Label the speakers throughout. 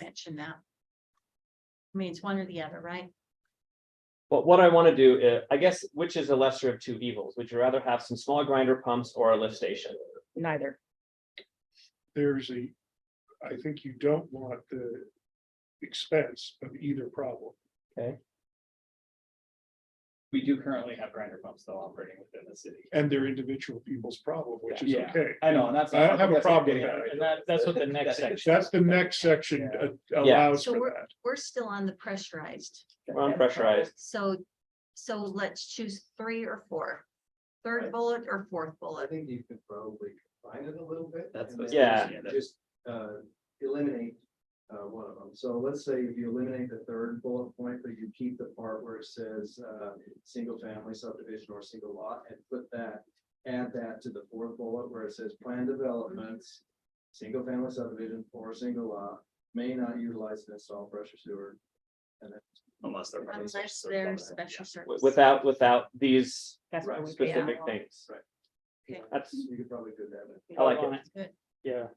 Speaker 1: mention that. I mean, it's one or the other, right?
Speaker 2: But what I want to do, is, I guess, which is a lesser of two evils? Would you rather have some small grinder pumps or a lift station?
Speaker 3: Neither.
Speaker 4: there's a, I think you don't want the expense of either problem.
Speaker 5: We do currently have grinder pumps though operating within the city.
Speaker 4: And they're individual people's problem, which is
Speaker 5: Yeah.
Speaker 4: okay.
Speaker 5: I know, and that's.
Speaker 4: I don't have a
Speaker 5: that's what I'm
Speaker 4: problem with
Speaker 5: getting at.
Speaker 4: that.
Speaker 5: And that, that's what the next section.
Speaker 4: That's the next section
Speaker 5: Yeah.
Speaker 4: uh, allows
Speaker 1: So
Speaker 4: for that.
Speaker 1: We're still on the pressurized,
Speaker 2: Or unpressurized?
Speaker 1: so, so let's choose three or four. Third
Speaker 6: Right.
Speaker 1: bullet or fourth
Speaker 6: I
Speaker 1: bullet,
Speaker 6: think you could probably combine it a little bit.
Speaker 5: That's
Speaker 6: and
Speaker 5: what-
Speaker 6: then
Speaker 2: Yeah.
Speaker 6: just- Just uh, eliminate uh, one of them. So let's say if you eliminate the third bullet point, but you keep the part where it says uh, single family subdivision or single lot and put that, add that to the fourth bullet where it says plan developments, single family subdivision or single lot may not utilize and install pressure sewer. And then
Speaker 5: Unless they're.
Speaker 1: unless there's special
Speaker 2: Wi-
Speaker 1: service.
Speaker 2: Without, without these
Speaker 3: That's what
Speaker 6: Right.
Speaker 3: we.
Speaker 2: specific
Speaker 1: Yeah.
Speaker 2: things?
Speaker 6: Right.
Speaker 1: Okay.
Speaker 2: That's,
Speaker 6: you could probably do that.
Speaker 2: I like
Speaker 3: Yeah.
Speaker 2: it. Yeah.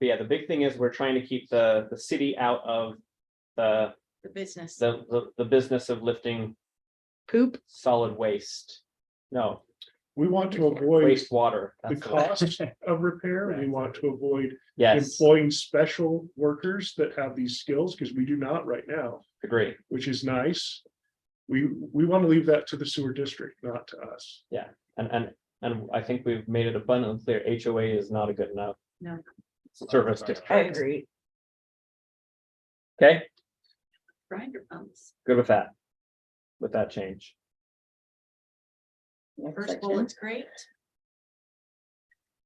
Speaker 2: But yeah, the big thing is we're trying to keep the, the city out of the,
Speaker 1: The business,
Speaker 2: the, the- the business of lifting
Speaker 3: Poop,
Speaker 2: solid waste. No,
Speaker 4: We want to avoid
Speaker 2: wastewater.
Speaker 4: the
Speaker 2: that's what-
Speaker 4: cost of repair. We want to avoid
Speaker 2: Yes,
Speaker 4: employing special workers that have these skills, because we do not right now,
Speaker 2: agree.
Speaker 4: which is nice. We, we want to leave that to the sewer district, not to us.
Speaker 2: And, and, and I think we've made it abundantly clear HOA is not a good enough
Speaker 1: no,
Speaker 2: service
Speaker 3: I
Speaker 2: district.
Speaker 3: agree.
Speaker 2: Okay,
Speaker 1: grinder pumps,
Speaker 2: good with that. With that change.
Speaker 1: first bullet's great.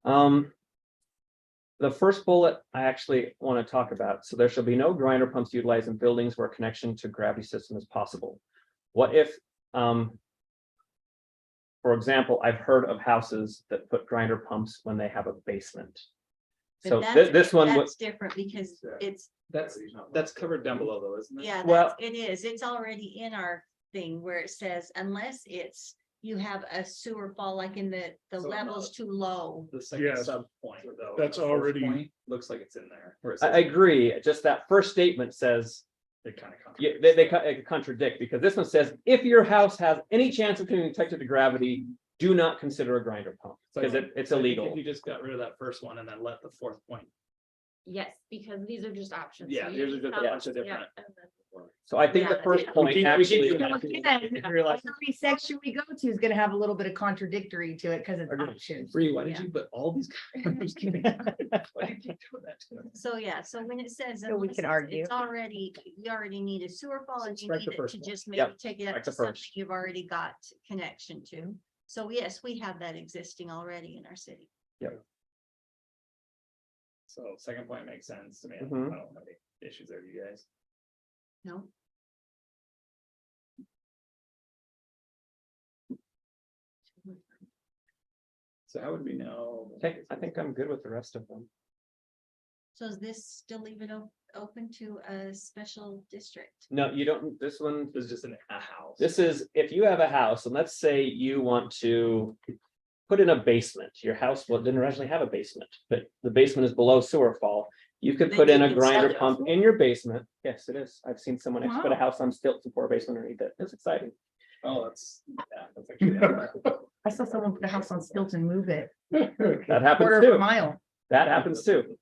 Speaker 2: Um. The first bullet I actually want to talk about. So there shall be no grinder pumps utilized in buildings where connection to gravity system is possible. What if, um. For example, I've heard of houses that put grinder pumps when they have a basement.
Speaker 1: but
Speaker 2: So
Speaker 1: that's-
Speaker 2: this, this one was,
Speaker 1: That's different because it's,
Speaker 5: That's, that's covered down below though, isn't it?
Speaker 1: yeah, that's,
Speaker 2: Well-
Speaker 1: it is, it's already in our thing where it says unless it's. You have a sewer fall like in the, the
Speaker 2: uh,
Speaker 5: So
Speaker 1: level's too low.
Speaker 5: The second
Speaker 4: Yes.
Speaker 5: sub point though.
Speaker 4: That's
Speaker 5: the fourth
Speaker 4: already-
Speaker 5: point, Looks like it's in there. where it
Speaker 2: I
Speaker 5: says
Speaker 2: I agree, just that first statement says
Speaker 5: It kind of.
Speaker 2: Yeah, they, they co- uh, contradict because this one says, if your house has any chance of being detected to gravity, do not consider a grinder pump because it, it's illegal.
Speaker 5: You just got rid of that first one and then let the fourth point.
Speaker 7: Yes, because these are just options.
Speaker 5: Yeah,
Speaker 7: so you
Speaker 5: these are
Speaker 7: can
Speaker 5: just a
Speaker 7: tell-
Speaker 5: bunch of
Speaker 7: yeah,
Speaker 5: different-
Speaker 7: and then-
Speaker 2: So I think the
Speaker 7: Yeah.
Speaker 2: first
Speaker 7: We
Speaker 5: keep-
Speaker 2: point
Speaker 5: we
Speaker 2: actually,
Speaker 5: keep-
Speaker 3: So again,
Speaker 5: I realize-
Speaker 3: Every section we go to is gonna have a little bit of contradictory to it because it's
Speaker 2: Agreed.
Speaker 3: options.
Speaker 5: Bree, why did
Speaker 1: Yeah.
Speaker 5: you put all these? I'm just kidding. Why did you do that to us?
Speaker 1: So, yeah, so when it says.
Speaker 3: So we
Speaker 1: unless
Speaker 3: can
Speaker 1: it's-
Speaker 3: argue.
Speaker 1: It's already, you already need a sewer fall and you
Speaker 5: Strike
Speaker 1: need
Speaker 5: the
Speaker 1: it
Speaker 5: first
Speaker 1: to
Speaker 5: one.
Speaker 1: just
Speaker 2: Yep,
Speaker 1: maybe take it
Speaker 2: strike
Speaker 1: up
Speaker 2: the
Speaker 1: to something
Speaker 2: first.
Speaker 1: you've already got connection to. So yes, we have that existing already in our city.
Speaker 5: So second point makes sense to me. I don't
Speaker 2: Mhm.
Speaker 5: have any issues there, you guys.
Speaker 1: No,
Speaker 5: So how would we know?
Speaker 2: okay, I think I'm good with the rest of them.
Speaker 1: so is this still leave it o- open to a special district?
Speaker 2: No, you don't, this one,
Speaker 5: It's just in a house.
Speaker 2: this is, if you have a house and let's say you want to put in a basement, your house, well, it didn't originally have a basement, but the basement is below sewer fall. You could
Speaker 1: Then
Speaker 2: put
Speaker 1: you
Speaker 2: in a
Speaker 1: can
Speaker 2: grinder
Speaker 1: sell it.
Speaker 2: put in your basement. Yes, it is. I've seen someone actually put a
Speaker 3: Wow.
Speaker 2: house on stilts and pour a basement underneath it. It's exciting.
Speaker 5: Oh, that's, yeah, that's actually.
Speaker 3: I saw someone put a house on stilts and move it
Speaker 2: That
Speaker 3: quarter
Speaker 2: happens
Speaker 3: of a
Speaker 2: too.
Speaker 3: mile.
Speaker 2: That happens too.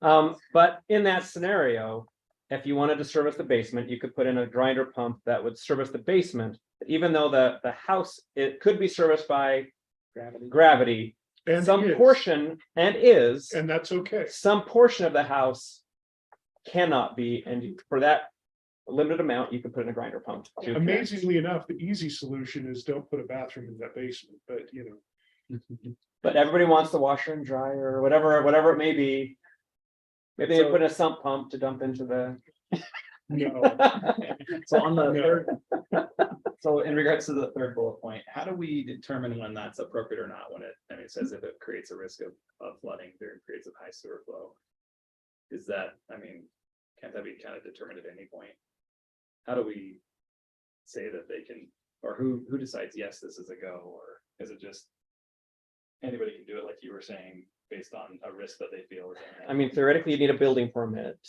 Speaker 2: Um, but in that scenario, if you wanted to service the basement, you could put in a grinder pump that would service the basement. Even though the, the house, it could be serviced by
Speaker 5: Gravity.
Speaker 2: gravity,
Speaker 4: And
Speaker 2: some
Speaker 4: is.
Speaker 2: portion and is,
Speaker 4: And that's okay.
Speaker 2: some portion of the house cannot be, and for that limited amount, you could put in a grinder pump. to connect.
Speaker 4: Amazingly enough, the easy solution is don't put a bathroom in that basement, but you know.
Speaker 2: But everybody wants the washer and dryer or whatever, whatever it may be. Maybe they
Speaker 5: So-
Speaker 2: put in a sump pump to dump into the.
Speaker 4: No,
Speaker 5: So on the
Speaker 4: Yeah.
Speaker 5: third. So in regards to the third bullet point, how do we determine when that's appropriate or not? When it, I mean, it says if it creates a risk of, of flooding during periods of high sewer flow. Is that, I mean, can't that be kind of determined at any point? How do we say that they can, or who, who decides, yes, this is a go, or is it just? Anybody can do it, like you were saying,
Speaker 8: based on a risk that they feel. is imminent.
Speaker 5: I mean, theoretically, you need a building permit